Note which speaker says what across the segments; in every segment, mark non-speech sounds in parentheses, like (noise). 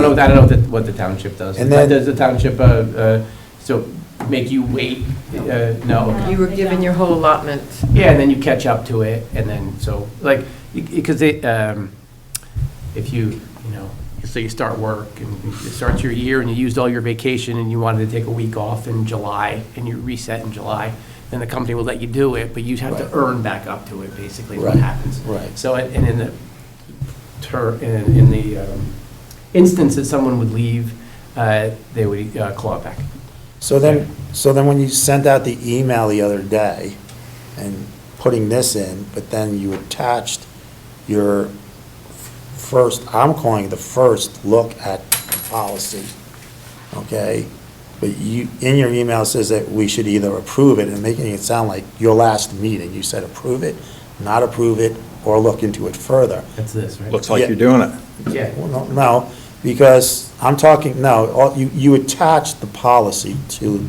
Speaker 1: know, I don't know what the- what the township does.
Speaker 2: And then-
Speaker 1: Does the township, uh, uh, so make you wait? Uh, No? okay.
Speaker 3: You were given your whole allotment.
Speaker 1: Yeah, and then you catch up to it, and then, so, like, because they, um, if you, you know, so you start work, and you start your year, and you used all your vacation, and you wanted to take a week off in July, and you reset in July, then the company will let you do it, but you have to
Speaker 2: Right.
Speaker 1: earn back up to it, basically, is what
Speaker 2: Right,
Speaker 1: happens.
Speaker 2: right.
Speaker 1: So, and and in the, ter, in in the um, instance that someone would leave, uh, they would uh, claw it back.
Speaker 2: So then, so then when you sent out the email the other day and putting this in, but then you attached your first, I'm calling it the first look at the policy, okay? But you, in your email says that we should either approve it and making it sound like your last meeting, you said approve it, not approve it, or look into it further.
Speaker 1: That's this, right?
Speaker 4: Looks like
Speaker 2: Yeah.
Speaker 4: you're doing it.
Speaker 1: Yeah.
Speaker 2: Well, no- No, because I'm talking, no, all- you, you attach the policy to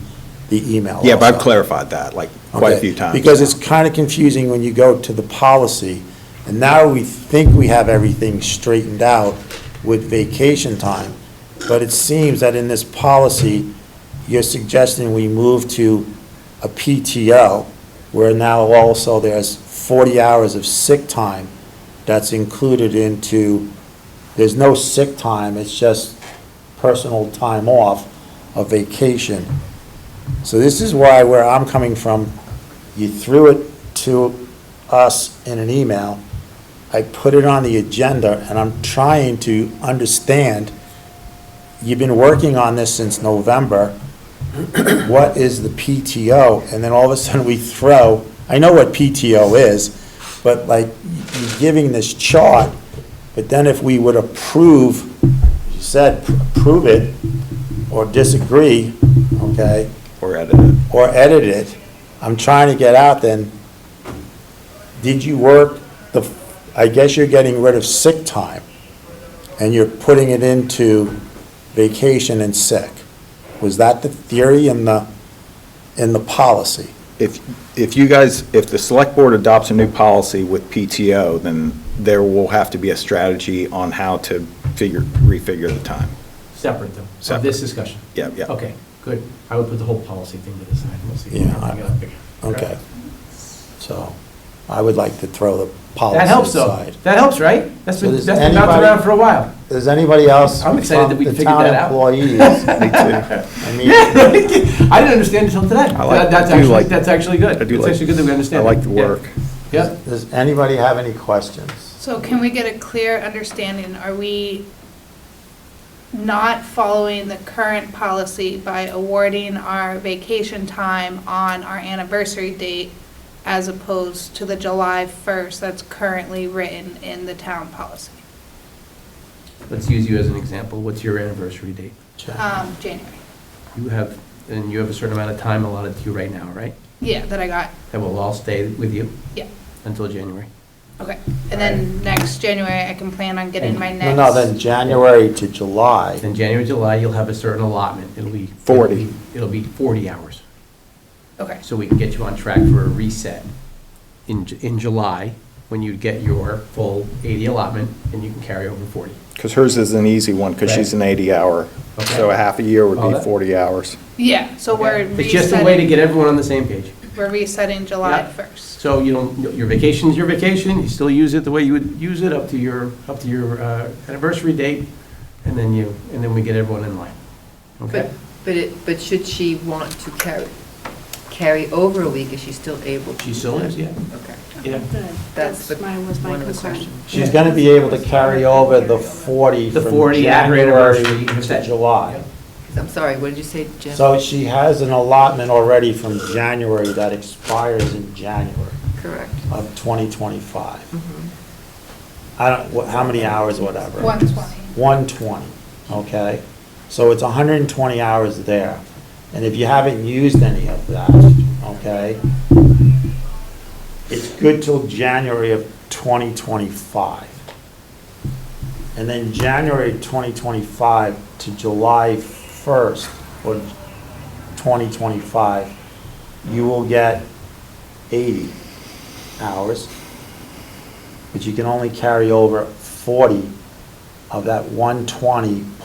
Speaker 2: the email.
Speaker 4: Yeah, but I've
Speaker 2: also.
Speaker 4: clarified that, like, quite a
Speaker 2: Okay,
Speaker 4: few times.
Speaker 2: Because it's kind of confusing when you go to the policy, and now we think we have everything straightened out with vacation time, but it seems that in this policy, you're suggesting we move to a PTO, where now also there's 40 hours of sick time that's included into, there's no sick time, it's just personal time off of vacation. So this is why, where I'm coming from, you threw it to us in an email, I put it on the agenda, and I'm trying to understand, you've been working on this since November, (clears throat) what is the PTO? And then all of a sudden, we throw, I know what PTO is, but like, you're giving this chart, but then if we would approve, you said, approve it, or disagree, okay?
Speaker 4: Or edited.
Speaker 2: or edit it, I'm trying to get out then, did you work the, I guess you're getting rid of sick time, and you're putting it into vacation and sick. Was that the theory in the, in the policy?
Speaker 4: If, if you guys, if the select board adopts a new policy with PTO, then there will have to be a strategy on how to figure, refigure the time.
Speaker 1: Separate though, of this
Speaker 4: Separate.
Speaker 1: discussion?
Speaker 4: Yeah, yeah.
Speaker 1: Okay, good. I would put the whole policy thing to the side, we'll see.
Speaker 2: Yeah, I-
Speaker 1: Okay.
Speaker 2: Okay. So, I would like to throw the policy
Speaker 1: That helps though.
Speaker 2: aside.
Speaker 1: That helps, right? That's
Speaker 2: So
Speaker 1: been,
Speaker 2: does
Speaker 1: that's been bouncing
Speaker 2: anybody-
Speaker 1: around for a
Speaker 4: (laughs)
Speaker 1: while. (laughs)
Speaker 2: Does anybody else?
Speaker 1: I'm excited
Speaker 2: from
Speaker 1: that we
Speaker 2: the
Speaker 1: figured
Speaker 2: town
Speaker 1: that out.
Speaker 2: Employees. I
Speaker 1: (laughs)
Speaker 2: mean,
Speaker 1: I didn't understand until today.
Speaker 4: I like-
Speaker 1: That- That's
Speaker 4: I do
Speaker 1: actually,
Speaker 4: like-
Speaker 1: that's actually good.
Speaker 4: I do
Speaker 1: It's
Speaker 4: like-
Speaker 1: actually good that we understand.
Speaker 4: I like the
Speaker 1: Yeah.
Speaker 4: work.
Speaker 1: Yeah,
Speaker 2: Does anybody have any questions?
Speaker 5: So can we get a clear understanding? Are we not following the current policy by awarding our vacation time on our anniversary date as opposed to the July 1st that's currently written in the town policy?
Speaker 1: let's use you as an example. What's your anniversary date?
Speaker 5: Um, January.
Speaker 1: You have, and you have a certain amount of time allotted to you right now, right?
Speaker 5: Yeah, that I got,
Speaker 1: That will all stay with you
Speaker 5: yeah,
Speaker 1: until January.
Speaker 5: okay. And then next January, I can plan on getting my
Speaker 2: No,
Speaker 5: next.
Speaker 2: no, then January to July.
Speaker 1: Then January, July, you'll have a certain allotment. It'll be.
Speaker 4: 40.
Speaker 1: It'll be 40 hours.
Speaker 5: Okay,
Speaker 1: so we can get you on track for a reset in, Ju- in July, when you get your full 80 allotment, and you can carry over 40.
Speaker 4: Because hers is an easy one, because she's an 80-hour. So
Speaker 1: Okay.
Speaker 4: a half a year
Speaker 1: All
Speaker 4: would be
Speaker 1: that?
Speaker 4: 40 hours.
Speaker 5: yeah, so we're resetting.
Speaker 1: It's just a way to get everyone on the same page.
Speaker 5: We're resetting July
Speaker 1: Yeah.
Speaker 5: 1st.
Speaker 1: So you don't, your vacation's your vacation, you still use it the way you would use it up to your, up to your uh, anniversary date, and then you, and then we get everyone in line.
Speaker 3: But,
Speaker 1: Okay?
Speaker 3: but it, but should she want to carry, carry over a week, is she still able to?
Speaker 1: She still is, yeah,
Speaker 3: Okay.
Speaker 1: yeah.
Speaker 6: Good.
Speaker 3: That's
Speaker 6: That's
Speaker 3: the-
Speaker 6: my, was my
Speaker 3: one of the
Speaker 6: concern.
Speaker 3: questions.
Speaker 2: She's gonna be able to carry over the 40
Speaker 1: The
Speaker 2: from
Speaker 1: 40 at her
Speaker 2: January
Speaker 1: anniversary, if
Speaker 2: to
Speaker 1: that-
Speaker 2: July.
Speaker 3: I'm sorry, what did you say, Jim?
Speaker 2: So she has an allotment already from January that expires in January
Speaker 3: Correct.
Speaker 2: of
Speaker 3: Mm-hmm.
Speaker 2: 2025. I don't, what- how many hours, whatever?
Speaker 5: 120.
Speaker 2: 120, okay? So it's 120 hours there. And if you haven't used any of that, okay? It's good till January of 2025. And then January 2025 to July 1st or 2025, you will get 80 hours, but you can only carry over 40 of that 120